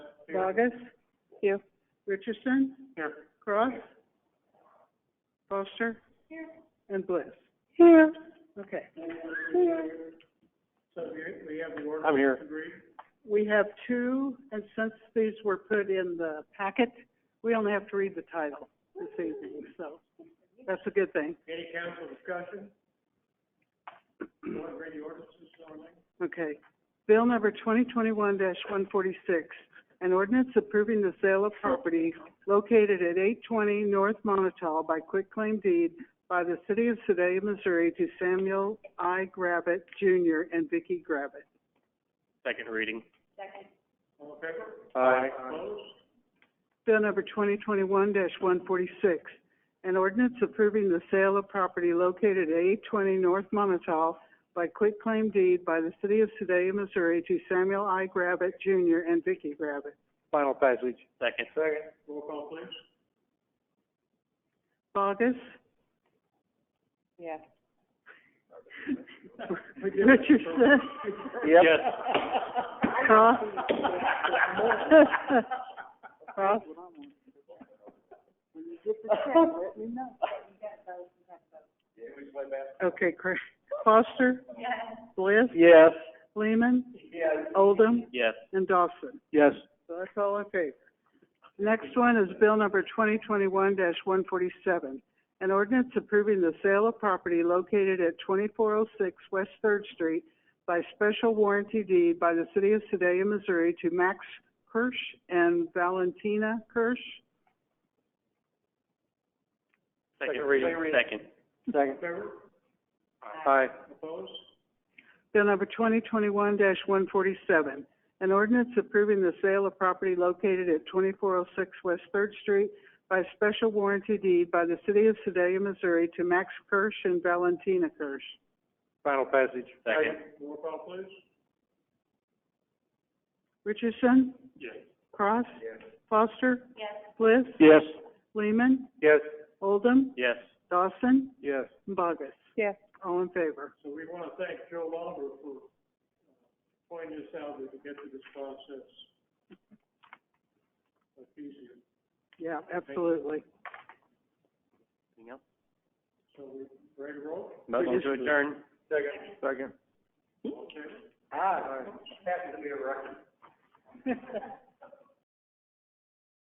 Vargas? Here. Richardson? Here. Cross? Foster? Here. And Bliss? Here. Okay. I'm here. We have two, and since these were put in the packet, we only have to read the title this evening, so that's a good thing. Any council discussion? Want to read the ordinances, Darlene? Okay. Bill number twenty twenty-one one forty-six, an ordinance approving the sale of property located at eight twenty North Monotol by quitclaim deed by the city of Sedalia, Missouri to Samuel I. Gravitt Jr. and Vicky Gravitt. Second reading. Second. All in favor? Aye. Opposed? Bill number twenty twenty-one one forty-six, an ordinance approving the sale of property located at eight twenty North Monotol by quitclaim deed by the city of Sedalia, Missouri to Samuel I. Gravitt Jr. and Vicky Gravitt. Final passage. Second. Second. Roll call, please. Vargas? Yes. Richardson? Yep. Cross? Cross? Okay, Cra- Foster? Bliss? Yes. Lehman? Oldham? Yes. And Dawson? Yes. So that's all in favor. Next one is bill number twenty twenty-one one forty-seven. An ordinance approving the sale of property located at twenty-four oh six West Third Street by special warranty deed by the city of Sedalia, Missouri to Max Kirsch and Valentina Kirsch. Second reading. Second. Second. Favor? Aye. Opposed? Bill number twenty twenty-one one forty-seven. An ordinance approving the sale of property located at twenty-four oh six West Third Street by special warranty deed by the city of Sedalia, Missouri to Max Kirsch and Valentina Kirsch. Final passage. Second. Roll call, please. Richardson? Yes. Cross? Foster? Bliss? Yes. Lehman? Yes. Oldham? Yes. Dawson? Yes. And Bogus? Yes. All in favor. So we want to thank Joe Lomber for uh, pointing us out that we get through this process. Much easier. Yeah, absolutely. Anything else? So we ready to roll? to Second. Second. Okay. Aye. Happy to be a record.